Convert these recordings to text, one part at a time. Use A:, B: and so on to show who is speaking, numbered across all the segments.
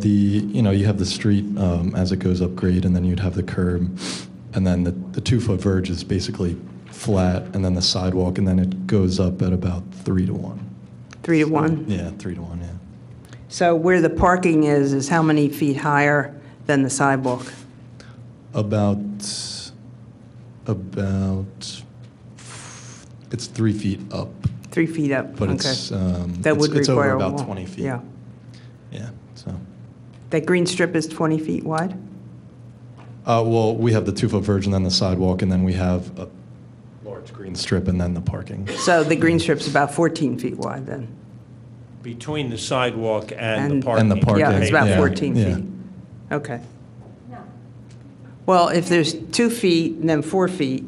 A: The, you know, you have the street um, as it goes up grade, and then you'd have the curb, and then the, the two foot verge is basically flat, and then the sidewalk, and then it goes up at about three to one.
B: Three to one.
A: Yeah, three to one, yeah.
B: So where the parking is, is how many feet higher than the sidewalk?
A: About, about, it's three feet up,
B: Three feet up?
A: but
B: Okay.
A: it's, um,
B: That
A: it's,
B: would
A: it's over
B: require a
A: about
B: wall.
A: 20 feet.
B: Yeah.
A: Yeah, so.
B: That green strip is 20 feet wide?
A: Uh, well, we have the two foot verge, and then the sidewalk, and then we have a large green strip, and then the parking.
B: So the green strip's about 14 feet wide then?
C: Between the sidewalk and
B: And-
C: the parking.
A: And the parking.
B: Yeah, it's about
A: yeah,
B: 14
A: yeah.
B: feet. Okay. Well, if there's two feet and then four feet,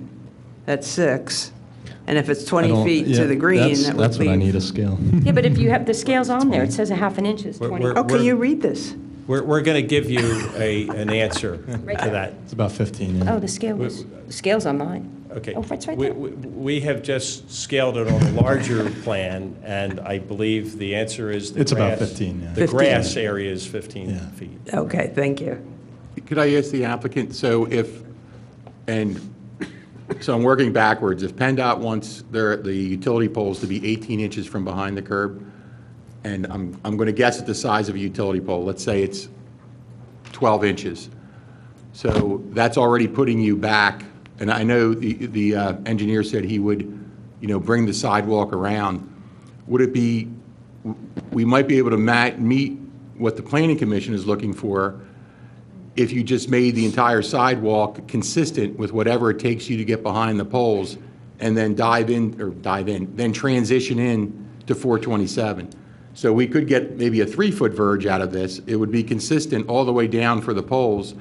B: that's six. And if it's
A: I
B: 20
A: don't-
B: feet
A: yeah,
B: to the green,
A: that's-
B: that
A: That's
B: would
A: what I need,
B: leave.
A: a scale.
D: Yeah, but if you have the scales on there, it says a half an inch is
C: We're-
D: 20.
C: we're-
B: Oh, can you read this?
C: We're, we're going to give you a, an answer
D: Right
C: to that.
D: there.
A: It's about 15, yeah.
D: Oh, the scale was, the scale's on mine.
C: Okay.
D: Oh, it's right
C: We-
D: there.
C: We we have just scaled it on a larger plan, and I believe the answer is the
A: It's about
C: grass-
A: 15, yeah.
C: The
B: 15.
C: grass area is 15
A: Yeah.
C: feet.
B: Okay, thank you.
E: Could I ask the applicant, so if, and, so I'm working backwards, if PennDOT wants their, the utility poles to be 18 inches from behind the curb, and I'm, I'm going to guess at the size of a utility pole, let's say it's 12 inches. So that's already putting you back, and I know the, the uh, engineer said he would, you know, bring the sidewalk around. Would it be, we might be able to ma, meet what the planning commission is looking for, if you just made the entire sidewalk consistent with whatever it takes you to get behind the poles, and then dive in, or dive in, then transition in to 427. So we could get maybe a three-foot verge out of this. It would be consistent all the way down for the poles,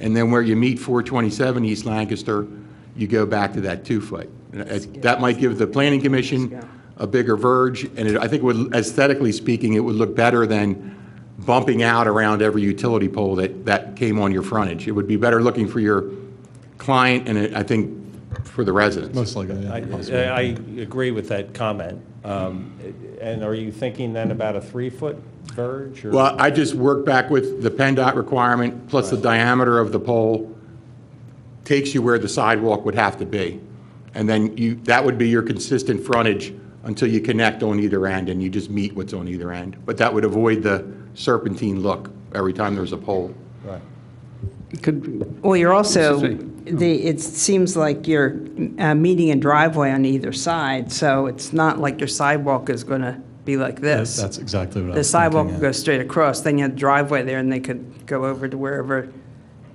E: and then where you meet 427 East Lancaster, you go back to that two-foot. And it- That might give the planning commission a bigger verge, and it- I think it would- aesthetically speaking, it would look better than bumping out around every utility pole that, that came on your frontage. It would be better looking for your client and it- I think for the residents.
A: Most likely,
C: I,
A: yeah. possibly.
C: I agree with that comment. Um, And are you thinking then about a three-foot verge? or-
E: Well, I just work back with the PennDOT requirement, plus the diameter of the pole takes you where the sidewalk would have to be. And then you, that would be your consistent frontage until you connect on either end and you just meet what's on either end. But that would avoid the serpentine look every time there's a pole.
C: Right.
F: Could,
B: Well, you're also,
F: Excuse
B: the, it seems like you're uh, meeting a driveway on either side, so it's not like your sidewalk is going to be like this.
A: That's exactly what I
B: The
A: was thinking,
B: sidewalk
A: yeah.
B: goes straight across, then you have driveway there, and they could go over to wherever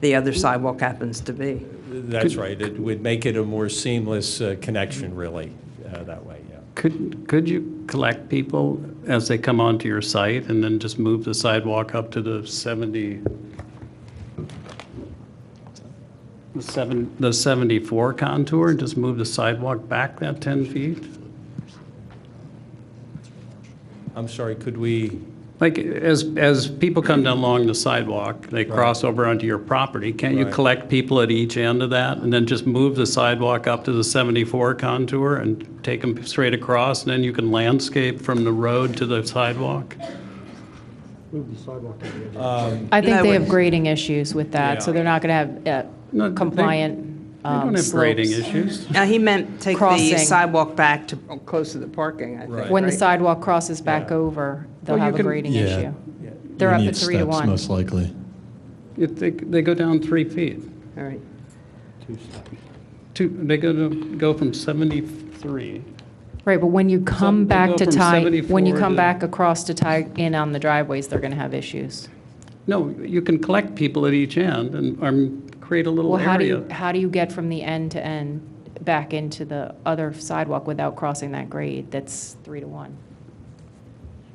B: the other sidewalk happens to be.
C: That's right. It would make it a more seamless uh, connection, really, uh, that way, yeah.
F: could, could you collect people as they come onto your site and then just move the sidewalk up to the 70, the seven, the 74 contour, and just move the sidewalk back that 10 feet?
C: I'm sorry, could we?
F: Like, as, as people come down along the sidewalk, they cross over onto your property, can't you
C: Right.
F: collect people at each end of that? And then just move the sidewalk up to the 74 contour and take them straight across? And then you can landscape from the road to the sidewalk?
G: I think
B: No,
G: they
B: it-
G: have grading issues with that, so
C: Yeah.
G: they're not going to have
F: No,
G: uh,
F: they-
G: compliant
F: They don't
G: um,
F: have grading
G: slopes.
F: issues.
B: Now, he meant take the
G: Crossing.
B: sidewalk back to, oh, close to the parking, I think,
C: Right.
G: When the
B: right?
G: sidewalk crosses back over, they'll
F: Well, you
G: have a
F: can-
G: grading
A: Yeah.
G: issue.
C: yeah.
G: They're
A: You
G: up
A: need
G: at three to
A: steps,
G: one.
A: Most likely.
F: If They, they go down three feet.
B: All right.
F: Two, they go to, go from 73.
G: Right, but when you come
F: they'll
G: back
F: go
G: to
F: from
G: tie, when
F: 74
G: you come
F: to-
G: back across to tie in on the driveways, they're going to have issues.
F: No, you can collect people at each end and, um, create a little
G: Well, how do
F: area.
G: you, how do you get from the end to end back into the other sidewalk without crossing that grade that's three to one?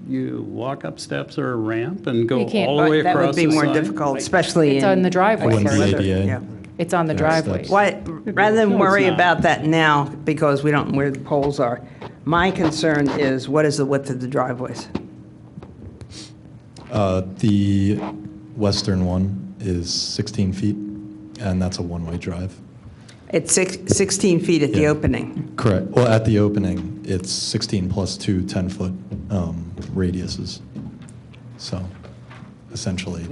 F: You walk up steps or a ramp and go
G: You can't,
F: all the way
B: But that
F: across
B: would
F: the
B: be more
F: side?
B: difficult, especially in.
G: It's on the driveway.
A: Wouldn't be
B: Weather,
A: ADA.
B: yeah.
G: It's on the
A: Yeah, it's
G: driveways.
B: Why, rather
F: No,
B: than
F: it's
B: worry
F: not.
B: about that now, because we don't know where the poles are, my concern is, what is the width of the driveways?
A: Uh, The western one is 16 feet, and that's a one-way drive.
B: It's six- 16 feet at the
A: Yeah.
B: opening.
A: Correct. Well, at the opening, it's 16 plus two 10-foot radiuses. um, So essentially.